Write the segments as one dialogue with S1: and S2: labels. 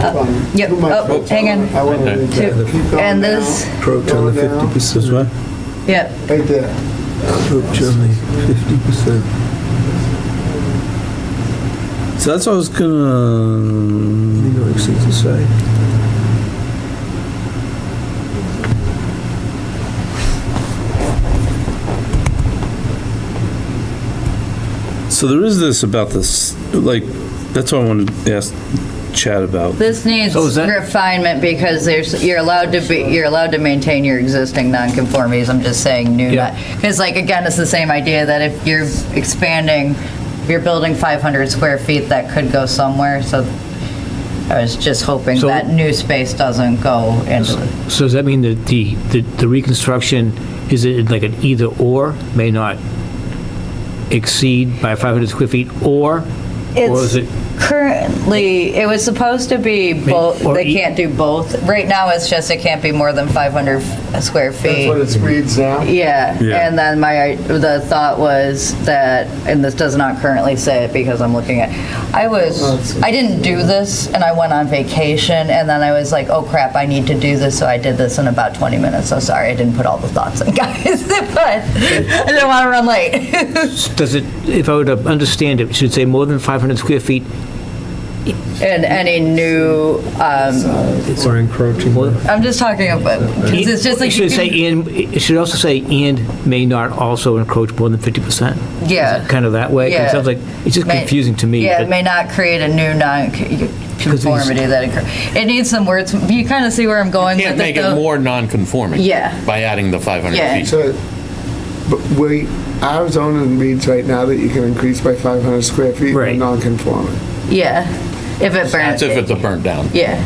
S1: fund.
S2: Yep,
S1: Too much
S2: oh,
S1: fund.
S2: hang on.
S1: I want to
S3: Okay.
S1: read that. Keep going
S2: And
S1: down.
S2: this,
S4: Approach on
S1: Going
S4: the
S1: down.
S4: 50 percent, what?
S2: yep,
S1: Right there.
S4: Approach on the 50 percent. So that's what I was gonna. Legal exceeds the site. So there is this about this, like, that's what I wanted to ask Chad about.
S2: this needs
S5: So is that-
S2: refinement because there's, you're allowed to be, you're allowed to maintain your existing nonconformities. I'm just saying new,
S5: Yeah.
S2: because like, again, it's the same idea that if you're expanding, if you're building 500 square feet, that could go somewhere, so I was just hoping
S5: So-
S2: that new space doesn't go into it.
S5: So does that mean that the, the- the reconstruction, is it like an either or, may not exceed by 500 square feet, or, or is it,
S2: It's currently, it was supposed to be both,
S5: or
S2: they
S5: e-
S2: can't do both. Right now, it's just it can't be more than 500 square
S1: That's
S2: feet.
S1: what it reads now.
S2: Yeah,
S4: Yeah.
S2: and then my, the thought was that, and this does not currently say it because I'm looking at, I
S1: Oh,
S2: was, I didn't do this and I went on vacation and then I was like, oh crap, I need to do this, so I did this in about 20 minutes, so sorry, I didn't put all the thoughts in, guys, but I didn't want to run late.
S5: does it, if I were to understand it, should it say more than 500 square feet?
S2: And any new, um,
S4: Or encroaching.
S5: Well,
S2: I'm just talking about, 'cause it's just like.
S5: It should say, and, it should also say, and may not also encroach more than 50%?
S2: Yeah.
S5: Is it Kind of that way? 'Cause
S2: Yeah.
S5: It sounds like, it's just
S2: May-
S5: confusing to me.
S2: Yeah,
S5: but-
S2: it may not create a new non-conformity that occur. It needs some words. You kind of see where I'm going
S3: Can't
S2: with
S3: make
S2: it,
S3: it
S2: though.
S3: more non-conforming.
S2: Yeah.
S3: By adding the 500
S2: Yeah.
S3: feet.
S1: So, but we, our zoning reads right now that you can increase by 500 square feet
S5: Right.
S1: in non-conforming.
S2: Yeah, if it burns.
S3: That's if it's a burnt down,
S2: Yeah,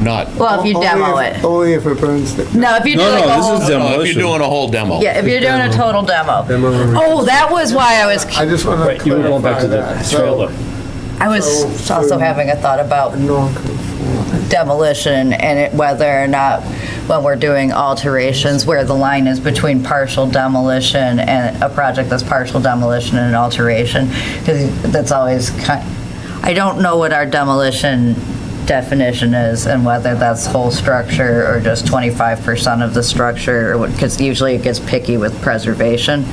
S3: not,
S2: well, if you
S1: Only
S2: demo
S1: if-
S2: it.
S1: Only if it burns down.
S2: No, if you do
S4: No,
S2: like
S4: no,
S2: a
S4: this is
S2: whole,
S3: No, if
S4: demolition.
S3: you're doing a whole demo.
S2: yeah, if you're doing a total demo. Oh, that was why I was,
S1: I just want to
S5: You were going back
S1: clarify
S5: to
S1: that.
S5: the
S1: So,
S5: trailer.
S2: I was also having a thought about
S1: non-conforming.
S2: demolition and it- whether or not, when we're doing alterations, where the line is between partial demolition and a project that's partial demolition and an alteration, because that's always kind, I don't know what our demolition definition is and whether that's whole structure or just 25% of the structure, or because usually it gets picky with preservation.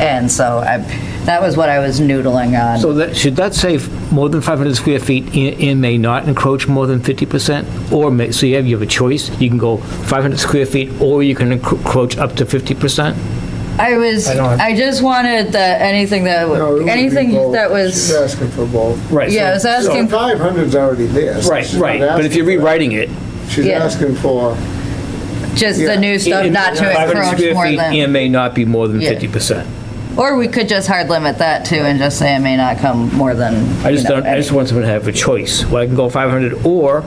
S2: And so I, that was what I was noodling on.
S5: So that, should that say more than 500 square feet and and may not encroach more than 50%? Or may, so you have, you have a choice, you can go 500 square feet or you can encro- encroach up to 50%?
S2: I was,
S4: don't-
S2: I just wanted that, anything that,
S1: No, it would be
S2: anything
S1: both.
S2: that
S1: She's
S2: was,
S1: asking for both.
S5: Right.
S2: yeah, I was
S1: So
S2: asking,
S1: 500's already there. so
S5: Right,
S1: she's not
S5: right, but if
S1: asking
S5: you're
S1: for that.
S5: rewriting it.
S1: She's
S2: Yeah.
S1: asking for,
S2: just the
S1: yeah.
S2: new stuff
S5: it-
S2: not to
S5: 500
S2: encroach
S5: square
S2: more
S5: feet
S2: than,
S5: And may not be more than
S2: Yeah.
S5: 50%.
S2: or we could just hard limit that too and just say it may not come more than,
S5: I
S2: you
S5: just
S2: know,
S5: don't, I just
S2: any
S5: want someone to have a choice, well, I can go 500 or,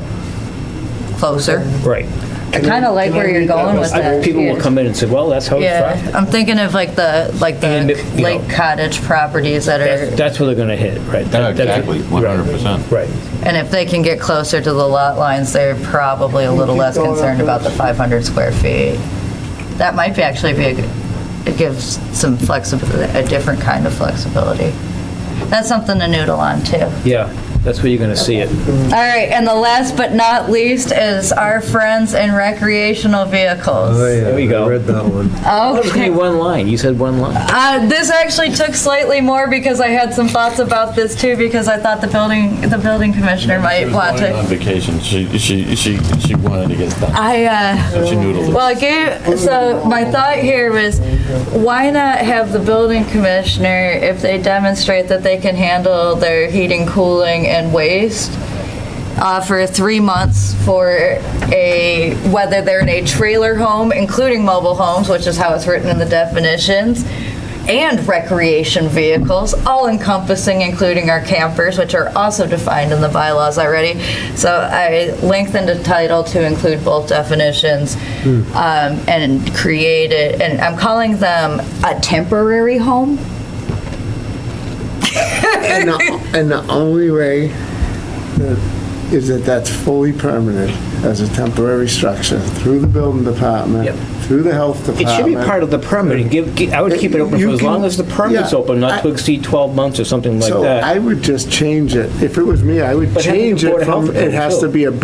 S2: closer.
S5: right.
S2: I kind of like
S1: can I
S2: where you're
S1: read that
S2: going with
S1: list?
S5: I-
S2: that.
S5: People will
S2: yeah.
S5: come in and say, well, that's how it's
S2: Yeah,
S5: drafted.
S2: I'm thinking of like the, like
S5: And,
S2: the
S5: you know-
S2: lake cottage properties that
S5: That's-
S2: are,
S5: That's where they're going to hit, right? That- that's- Right.
S2: and if they can get closer to the lot lines, they're probably a little
S1: keep
S2: less
S1: going up
S2: concerned about the
S1: first.
S2: 500 square feet. That might be actually be, a good- it gives some flexibility, a different kind of flexibility. That's something to noodle on too.
S5: Yeah, that's where you're going to see it.
S2: All right, and the last but not least is our friends and recreational vehicles.
S5: There we go.
S4: Oh, I read that one.
S5: I was going
S2: Okay,
S5: to one line, you said one line.
S2: uh, this actually took slightly more because I had some thoughts about this too, because I thought the building, the building commissioner might want
S3: She was going On
S2: to.
S3: vacation, she, she, she, she wanted to get done,
S2: I, uh,
S3: so she noodled.
S2: Well, I gave, so my thought here was, why not have the building commissioner, if they demonstrate that they can handle their heating, cooling, and waste, offer three months for a, whether they're in a trailer home, including mobile homes, which is how it's written in the definitions, and recreation vehicles, all encompassing, including our campers, which are also defined in the bylaws already. So I lengthened the title to include both definitions um, and created, and I'm calling them a temporary home.
S1: and the, and the only way that- is that that's fully permanent as a temporary structure through the building department,
S5: Yep.
S1: through the health
S5: It
S1: department.
S5: should be part of the permit. Give, gi- I would keep it open
S1: You
S5: for as
S1: can-
S5: long as the permit's
S1: yeah,
S5: open, not to
S1: I-
S5: exceed 12 months or something like
S1: So
S5: that.
S1: I would just change it. If it was me, I would
S5: But having
S1: change
S5: the Board
S1: it
S5: of
S1: from,
S5: Health
S1: it has
S5: too.
S1: to be a